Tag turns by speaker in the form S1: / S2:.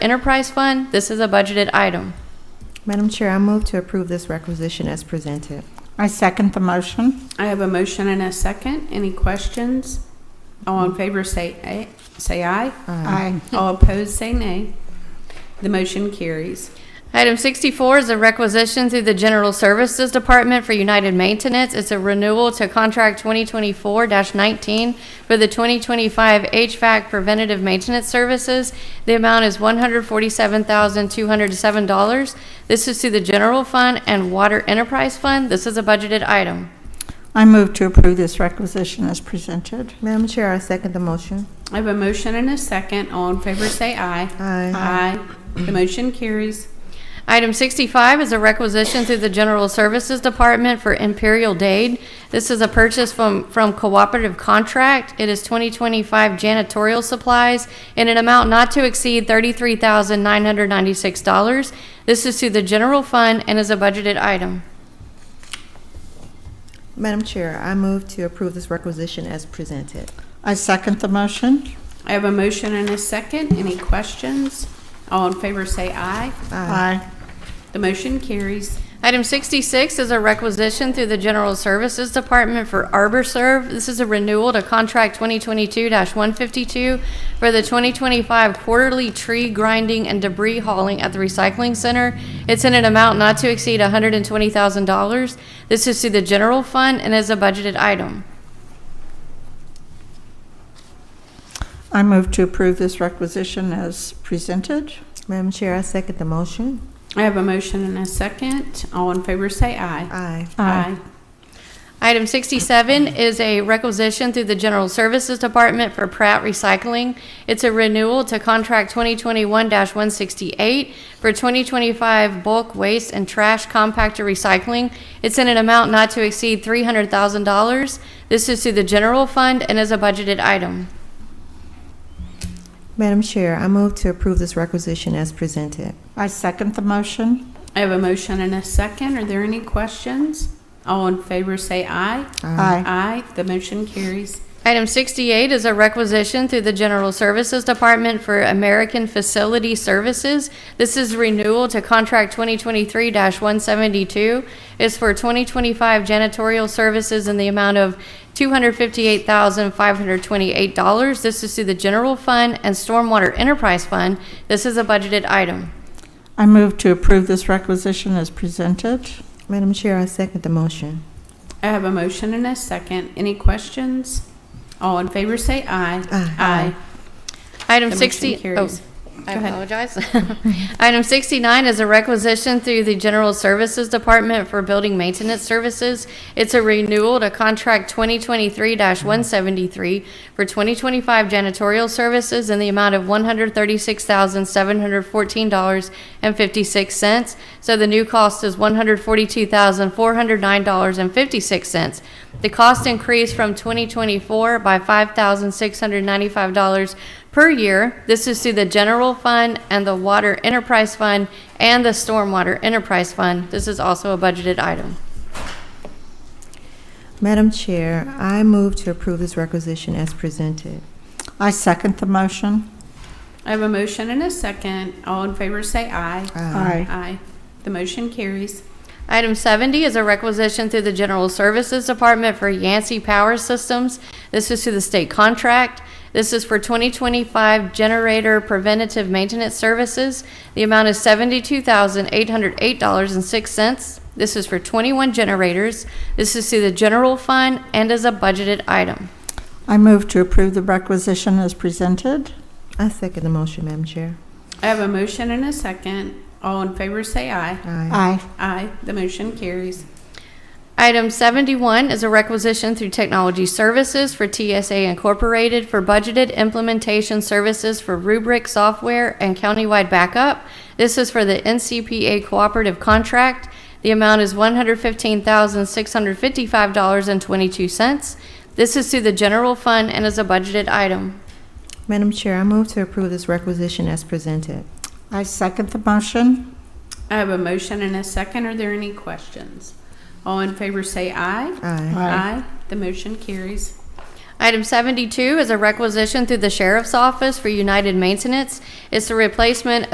S1: Enterprise Fund, this is a budgeted item.
S2: Madam Chair, I move to approve this requisition as presented.
S3: I second the motion.
S4: I have a motion and a second. Any questions? All in favor say aye, say aye.
S2: Um,
S3: Aye.
S4: All opposed say nay. The motion carries.
S1: Item 64 is a requisition through the General Services Department for United Maintenance. It's a renewal to contract 2024-19 for the 2025 HVAC preventative maintenance services. The amount is $147,207. This is to the General Fund and Water Enterprise Fund. This is a budgeted item.
S3: I move to approve this requisition as presented.
S2: Madam Chair, I second the motion.
S4: I have a motion and a second. All in favor say aye.
S2: Aye.
S4: Aye. The motion carries.
S1: Item 65 is a requisition through the General Services Department for Imperial Dade. This is a purchase from, from Cooperative Contract. It is 2025 janitorial supplies in an amount not to exceed $33,996. This is to the general fund and is a budgeted item.
S2: Madam Chair, I move to approve this requisition as presented.
S3: I second the motion.
S4: I have a motion and a second. Any questions? All in favor say aye.
S3: Aye.
S4: The motion carries.
S1: Item 66 is a requisition through the General Services Department for ArborServe. This is a renewal to Contract 2022-152 for the 2025 quarterly tree grinding and debris hauling at the recycling center. It's in an amount not to exceed $120,000. This is to the general fund and is a budgeted item.
S3: I move to approve this requisition as presented.
S2: Madam Chair, I second the motion.
S4: I have a motion and a second. All in favor say aye.
S2: Aye.
S1: Item 67 is a requisition through the General Services Department for Pratt Recycling. It's a renewal to Contract 2021-168 for 2025 bulk waste and trash compactor recycling. It's in an amount not to exceed $300,000. This is to the general fund and is a budgeted item.
S2: Madam Chair, I move to approve this requisition as presented.
S3: I second the motion.
S4: I have a motion and a second. Are there any questions? All in favor say aye.
S3: Aye.
S4: Aye. The motion carries.
S1: Item 68 is a requisition through the General Services Department for American Facility Services. This is renewal to Contract 2023-172. It's for 2025 janitorial services in the amount of $258,528. This is through the General Fund and Stormwater Enterprise Fund. This is a budgeted item.
S3: I move to approve this requisition as presented.
S2: Madam Chair, I second the motion.
S4: I have a motion and a second. Any questions? All in favor say aye.
S2: Aye.
S1: Item
S4: The motion
S1: 60, oh,
S4: carries.
S1: I
S4: Go ahead.
S1: apologize. Item 69 is a requisition through the General Services Department for Building Maintenance Services. It's a renewal to Contract 2023-173 for 2025 janitorial services in the amount of $136,714.56. So the new cost is $142,409.56. The cost increased from 2024 by $5,695 per year. This is through the general fund and the water enterprise fund and the stormwater enterprise fund. This is also a budgeted item.
S2: Madam Chair, I move to approve this requisition as presented.
S3: I second the motion.
S4: I have a motion and a second. All in favor say aye.
S2: Um,
S3: Aye.
S4: Aye. The motion carries.
S1: Item 70 is a requisition through the General Services Department for Yancey Power Systems. This is through the state contract. This is for 2025 generator preventative maintenance services. The amount is $72,808.06. This is for 21 generators. This is through the general fund and is a budgeted item.
S3: I move to approve the requisition as presented.
S2: I second the motion, Madam Chair.
S4: I have a motion and a second. All in favor say aye.
S2: Aye.
S3: Aye.
S4: Aye. The motion carries.
S1: Item 71 is a requisition through Technology Services for TSA Incorporated for budgeted implementation services for rubric software and countywide backup. This is for the NCPA cooperative contract. The amount is $115,655.22. This is through the general fund and is a budgeted item.
S2: Madam Chair, I move to approve this requisition as presented.
S3: I second the motion.
S4: I have a motion and a second. Are there any questions? All in favor say aye.
S2: Aye.
S4: Aye. The motion carries.
S1: Item 72 is a requisition through the Sheriff's Office for United Maintenance. It's a replacement